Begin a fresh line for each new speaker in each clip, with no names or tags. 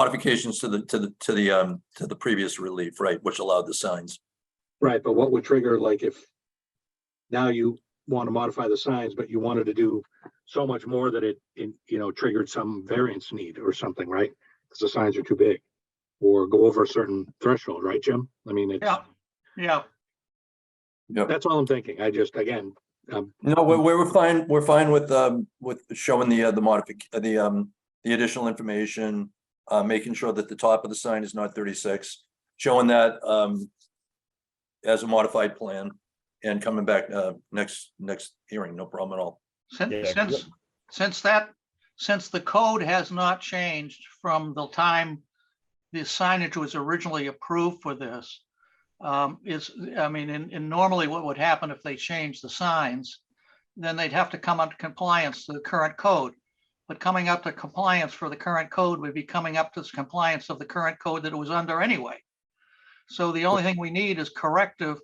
modifications to the, to the, to the, um, to the previous relief, right, which allowed the signs.
Right, but what would trigger, like if now you want to modify the signs, but you wanted to do so much more that it, in- you know, triggered some variance need or something, right? Because the signs are too big or go over a certain threshold, right, Jim? I mean, it's,
Yeah. Yeah,
that's all I'm thinking. I just, again, um,
No, we're, we're fine, we're fine with, um, with showing the, uh, the modific, uh, the, um, the additional information. Uh, making sure that the top of the sign is not thirty-six, showing that, um. As a modified plan and coming back, uh, next, next hearing, no problem at all.
since,
Yeah.
since, since that, since the code has not changed from the time the signage was originally approved for this, um, is, I mean, and, and normally what would happen if they changed the signs, then they'd have to come up to compliance to the current code. But coming up to compliance for the current code would be coming up to compliance of the current code that it was under anyway. So the only thing we need is corrective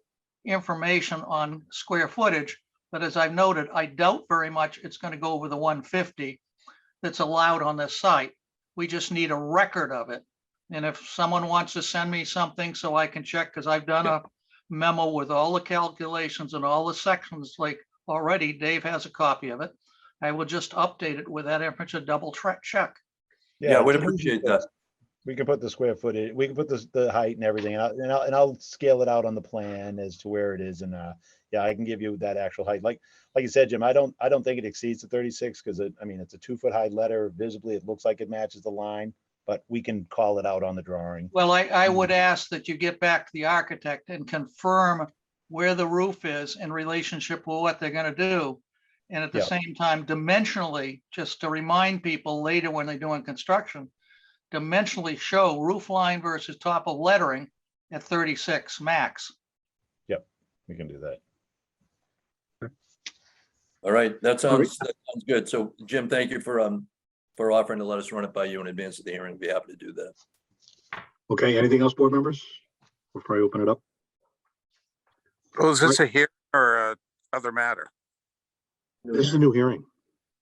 information on square footage. But as I've noted, I doubt very much it's going to go over the 150 that's allowed on this site. We just need a record of it. And if someone wants to send me something so I can check, because I've done a memo with all the calculations and all the sections, like already Dave has a copy of it. I will just update it with that information, double track check.
Yeah, we'd
so we can
appreciate
put-
that.
We can put the square footage, we can put the, the height and everything, and I- and I'll, and I'll scale it out on the plan as to where it is, and, uh, yeah, I can give you that actual height, like, like you said, Jim, I don't, I don't think it exceeds the thirty-six, because it, I mean, it's a two-foot high letter, visibly, it looks like it matches the line, but we can call it out on the drawing.
Well, I, I would
Mm.
ask that you get back to the architect and confirm where the roof is in relationship with what they're gonna do. And at the
Yeah.
same time, dimensionally, just to remind people later when they're doing construction, dimensionally show roof line versus top of lettering at thirty-six max.
We can do that.
All right, that
All right.
sounds, that sounds good. So Jim, thank you for, um, for offering to let us run it by you in advance of the hearing. Be happy to do that.
okay, anything else, board members? Before I open it up?
Well, Oh, is this a hearing or a other matter?
This is a new hearing,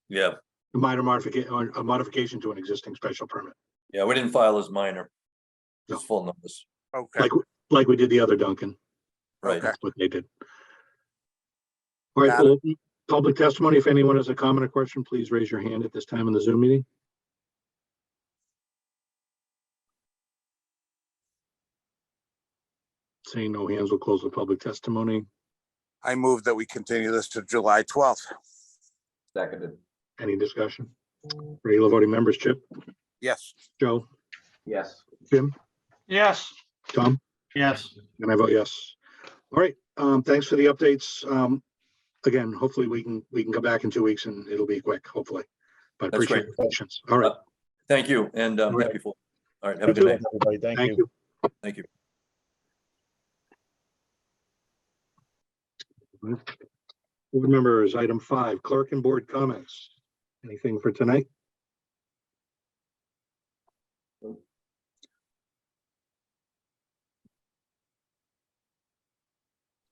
Yeah,
a minor modification, or a modification to an existing special permit,
yeah, we didn't file as minor.
No.
Just full numbers,
Okay,
like, like we did the other Duncan.
right?
Okay.
That's what they did. All right,
Got
we'll open public testimony. If anyone has a comment or question, please raise your hand at this time in the Zoom meeting. Seeing no hands, we'll close the public testimony.
I move that we continue this to July twelfth.
Seconded,
Any discussion? Regular voting members, Chip,
Yes,
Joe,
yes.
Yes.
Tom?
Yes.
And I vote yes. All right, um, thanks for the updates. Um, again, hopefully we can, we can come back in two weeks and it'll be quick, hopefully. But
That's
appreciate your patience. All right,
Thank you, and um,
All right.
happy for, all right, have a
You too.
good day.
Thanks, everybody. Thank
thank
you.
you.
Thank you.
Board members, item five, clerk and board comments. Anything for tonight?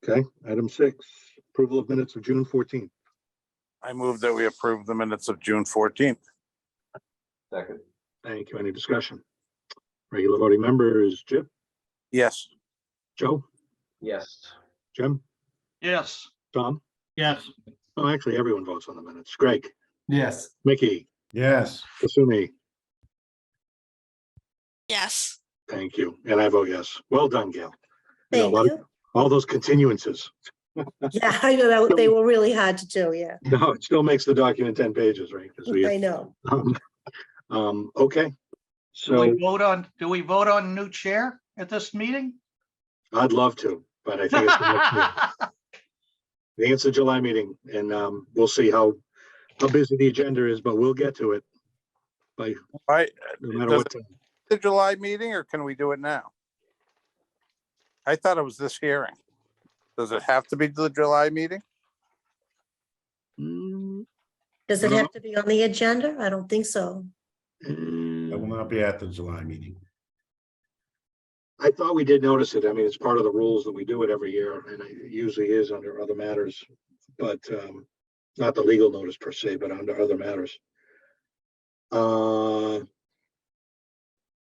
Okay, item six, approval of minutes of June fourteenth.
I move that we approve the minutes of June fourteenth.
Second,
Thank you. Any discussion? Regular voting members, Jip,
Yes,
Joe,
yes.
Jim,
Yes.
Tom?
Yes.
Oh, actually, everyone votes on the minutes. Greg? Yes. Mickey? Yes. Kasumi?
Yes.
Thank you. And I vote yes. Well done, Gail. You know, a
Thank
lot of-
you.
All those continuances.
Yeah, I know, that- they were really hard to do, yeah,
No, it still makes the document ten pages, right? 'Cause we-
I know.
um, Um, okay,
Do we
so
vote on, do we vote on new chair at this meeting?
I'd love to, but I think it's the next meeting.
Yes,
I think it's the July meeting and, um, we'll see how, how busy the agenda is, but we'll get to it
all right,
no matter what. time.
the July meeting, or can we do it now? I thought it was this hearing. Does it have to be the July meeting?
Mm,
Does
I
it
don't
have to be on the agenda? I don't think so.
mm.
I will not be at the July meeting.
I thought we did notice it. I mean, it's part of the rules that we do it every year and it usually is under other matters. But um, not the legal notice per se, but under other matters. Uh,